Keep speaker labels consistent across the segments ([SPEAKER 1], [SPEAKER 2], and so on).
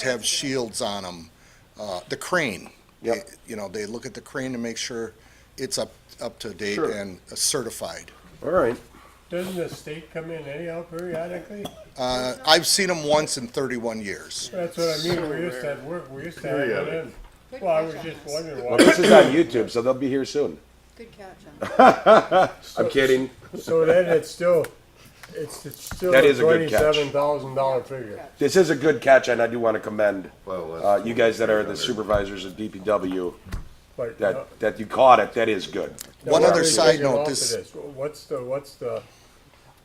[SPEAKER 1] to have shields on them. Uh, the crane.
[SPEAKER 2] Yep.
[SPEAKER 1] eh, You know, they look at the crane to make sure it's up, up to date
[SPEAKER 2] Sure.
[SPEAKER 1] and uh, certified.
[SPEAKER 2] All right.
[SPEAKER 3] Doesn't the state come in anyhow periodically?
[SPEAKER 1] Uh, I've seen them once in thirty-one years.
[SPEAKER 3] That's what I mean, we used to have work, we used to have it in.
[SPEAKER 4] Good
[SPEAKER 3] Well, I was
[SPEAKER 4] catch on
[SPEAKER 3] just
[SPEAKER 4] us.
[SPEAKER 3] wondering
[SPEAKER 2] Well,
[SPEAKER 3] why.
[SPEAKER 2] this is on YouTube, so they'll be here soon.
[SPEAKER 4] Good catch on us.
[SPEAKER 2] I'm kidding.
[SPEAKER 3] So then it's still, it's it's still
[SPEAKER 2] That
[SPEAKER 3] a
[SPEAKER 2] is a good catch.
[SPEAKER 3] twenty-seven thousand dollar figure.
[SPEAKER 2] This is a good catch, and I do want to commend
[SPEAKER 5] Well, that's-
[SPEAKER 2] uh, you guys that are the supervisors of DPW
[SPEAKER 3] But no-
[SPEAKER 2] that, that you caught it. That is good.
[SPEAKER 3] no,
[SPEAKER 1] One
[SPEAKER 3] we're
[SPEAKER 1] other
[SPEAKER 3] already
[SPEAKER 1] side
[SPEAKER 3] taking
[SPEAKER 1] note,
[SPEAKER 3] off of
[SPEAKER 1] this,
[SPEAKER 3] What's the, what's the,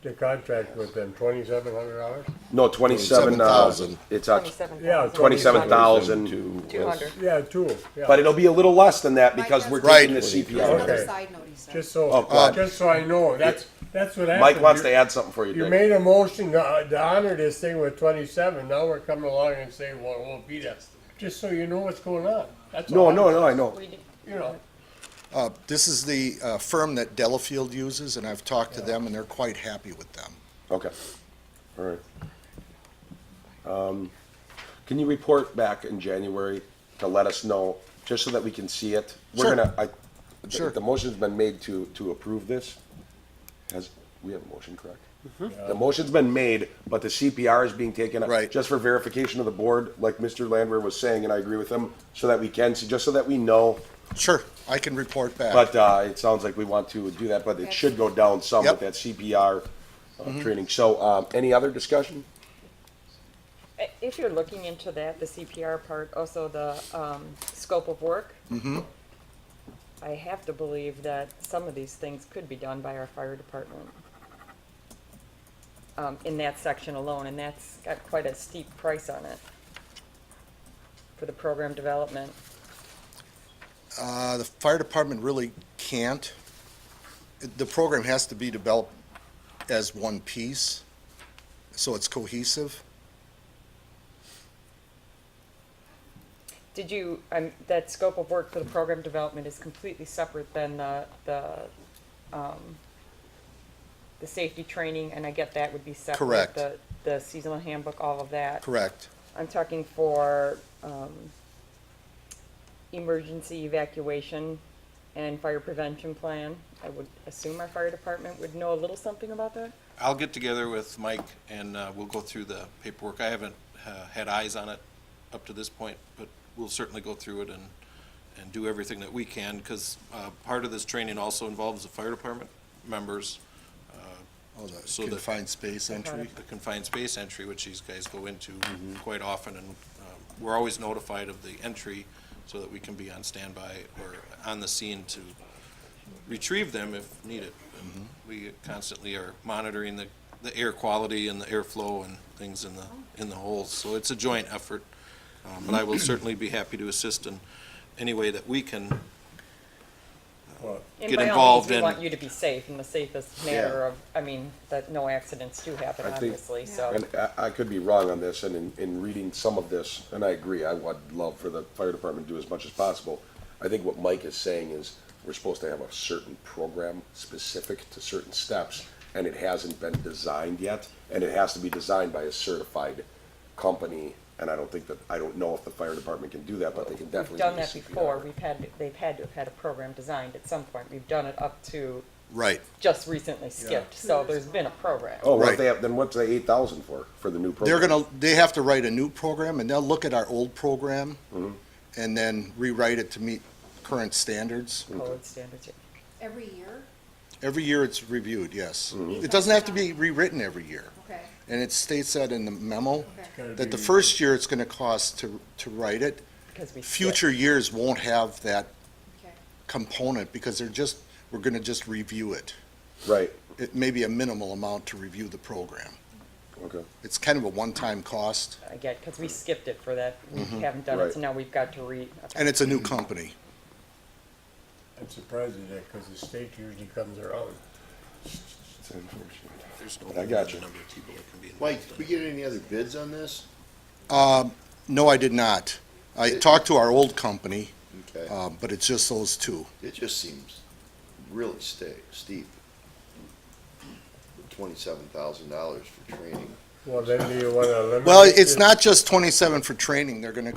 [SPEAKER 3] the contract with them, twenty-seven hundred dollars?
[SPEAKER 2] No, twenty-seven. uh,
[SPEAKER 1] 27,000.
[SPEAKER 2] It's a
[SPEAKER 6] Twenty-seven
[SPEAKER 3] Yeah,
[SPEAKER 6] thousand.
[SPEAKER 2] twenty-seven thousand,
[SPEAKER 6] Two hundred.
[SPEAKER 3] Yeah, two, yeah.
[SPEAKER 2] but it'll be a little less than that because we're
[SPEAKER 1] Right.
[SPEAKER 2] taking the
[SPEAKER 4] There's
[SPEAKER 2] CPI.
[SPEAKER 3] Okay.
[SPEAKER 4] another side note he said.
[SPEAKER 3] Just so,
[SPEAKER 2] Oh, go ahead.
[SPEAKER 3] just so I know, that's, that's what happened.
[SPEAKER 2] Mike wants to
[SPEAKER 3] You-
[SPEAKER 2] add something for you,
[SPEAKER 3] You
[SPEAKER 2] Dick.
[SPEAKER 3] made a motion to to honor this thing with twenty-seven, now we're coming along and saying, well, it won't be that. Just so you know what's going on, that's
[SPEAKER 2] No,
[SPEAKER 3] all.
[SPEAKER 2] no, no, I know.
[SPEAKER 6] We did-
[SPEAKER 3] You know,
[SPEAKER 1] uh, this is the, uh, firm that Delafield uses, and I've talked to them, and they're quite happy with them.
[SPEAKER 2] Okay. All right. Um, can you report back in January to let us know, just so that we can see it? We're
[SPEAKER 1] Sure.
[SPEAKER 2] gonna, I, the-
[SPEAKER 1] Sure.
[SPEAKER 2] the motion's been made to, to approve this. Has, we have a motion, correct? The motion's been made, but the CPR is being taken. up
[SPEAKER 1] Right.
[SPEAKER 2] Just for verification of the board, like Mr. Landwehr was saying, and I agree with him, so that we can, see just so that we know.
[SPEAKER 1] Sure, I can report back.
[SPEAKER 2] But, uh, it sounds like we want to do that, but it should go down some
[SPEAKER 1] Yep.
[SPEAKER 2] with that CPR, uh, training. So, um, any other discussion?
[SPEAKER 6] I- Uh, If you're looking into that, the CPR part, also the um, scope of work. I have to believe that some of these things could be done by our fire department. um, In that section alone, and that's got quite a steep price on it for the program development.
[SPEAKER 1] Uh, the fire department really can't. The program has to be developed as one piece, so it's cohesive.
[SPEAKER 6] Did you, um, that scope of work for the program development is completely separate than the, the, um, the safety training, and I get that would be separate.
[SPEAKER 1] Correct.
[SPEAKER 6] The, the seasonal handbook, all of that.
[SPEAKER 1] Correct.
[SPEAKER 6] I'm talking for, um, emergency evacuation and fire prevention plan. I would assume our fire department would know a little something about that.
[SPEAKER 7] I'll get together with Mike and uh, we'll go through the paperwork. I haven't uh, had eyes on it up to this point, but we'll certainly go through it and, and do everything that we can, because part of this training also involves the fire department members,
[SPEAKER 1] Oh, the
[SPEAKER 7] So the-
[SPEAKER 1] confined space entry.
[SPEAKER 7] the confined space entry, which these guys go into quite often, and um, we're always notified of the entry so that we can be on standby or on the scene to retrieve them if needed. And We constantly are monitoring the, the air quality and the airflow and things in the, in the holes, so it's a joint effort. Um, But I will certainly be happy to assist in any way that we can.
[SPEAKER 6] And
[SPEAKER 7] Get
[SPEAKER 6] by all means,
[SPEAKER 7] involved
[SPEAKER 6] We
[SPEAKER 7] in-
[SPEAKER 6] want you to be safe in the safest manner of, I mean, that no accidents do happen,
[SPEAKER 2] I think-
[SPEAKER 6] obviously, so.
[SPEAKER 2] And I, I could be wrong on this, and in, in reading some of this, and I agree, I would love for the fire department to do as much as possible. I think what Mike is saying is, we're supposed to have a certain program specific to certain steps, and it hasn't been designed yet, and it has to be designed by a certified company, and I don't think that, I don't know if the fire department can do that, but they can definitely
[SPEAKER 6] We've
[SPEAKER 2] do
[SPEAKER 6] done
[SPEAKER 2] the
[SPEAKER 6] that
[SPEAKER 2] CPR.
[SPEAKER 6] before, we've had, they've had to have had a program designed at some point, we've done it up to
[SPEAKER 1] Right.
[SPEAKER 6] just recently skipped, so there's been a program.
[SPEAKER 2] Oh, what
[SPEAKER 1] Right.
[SPEAKER 2] if they have, then what's the eight thousand for, for the new program?
[SPEAKER 1] They're gonna, they have to write a new program, and they'll look at our old program and then rewrite it to meet current standards.
[SPEAKER 6] Code standards,
[SPEAKER 4] Every year,
[SPEAKER 1] Every year it's reviewed, yes. It doesn't have to be rewritten every year.
[SPEAKER 4] okay,
[SPEAKER 1] And it states that in the memo,
[SPEAKER 4] okay.
[SPEAKER 1] that the first year it's gonna cost to, to write it,
[SPEAKER 6] because we. skipped.
[SPEAKER 1] future years won't have that
[SPEAKER 4] okay.
[SPEAKER 1] component because they're just, we're gonna just review it.
[SPEAKER 2] Right,
[SPEAKER 1] It may be a minimal amount to review the program.
[SPEAKER 2] okay.
[SPEAKER 1] It's kind of a one-time cost
[SPEAKER 6] I get, because we skipped it for that, we haven't done
[SPEAKER 2] Mm-hmm. Right.
[SPEAKER 6] it, so now we've got to re.
[SPEAKER 1] and it's a new company.
[SPEAKER 3] I'm surprised at that, cause the state usually comes around.
[SPEAKER 2] It's unfortunate.
[SPEAKER 7] There's no
[SPEAKER 2] I got you.
[SPEAKER 7] number of people that can be involved.
[SPEAKER 5] Mike,
[SPEAKER 7] in
[SPEAKER 5] did we get any other bids on this?
[SPEAKER 1] Um, No, I did not. I talked to our old company,
[SPEAKER 5] Okay,
[SPEAKER 1] uh, but it's just those two.
[SPEAKER 5] it just seems really sta- steep. Twenty-seven thousand dollars for training.
[SPEAKER 3] Well, then do you wanna eliminate?
[SPEAKER 1] Well, it's
[SPEAKER 3] this?
[SPEAKER 1] not just twenty-seven for training, they're gonna go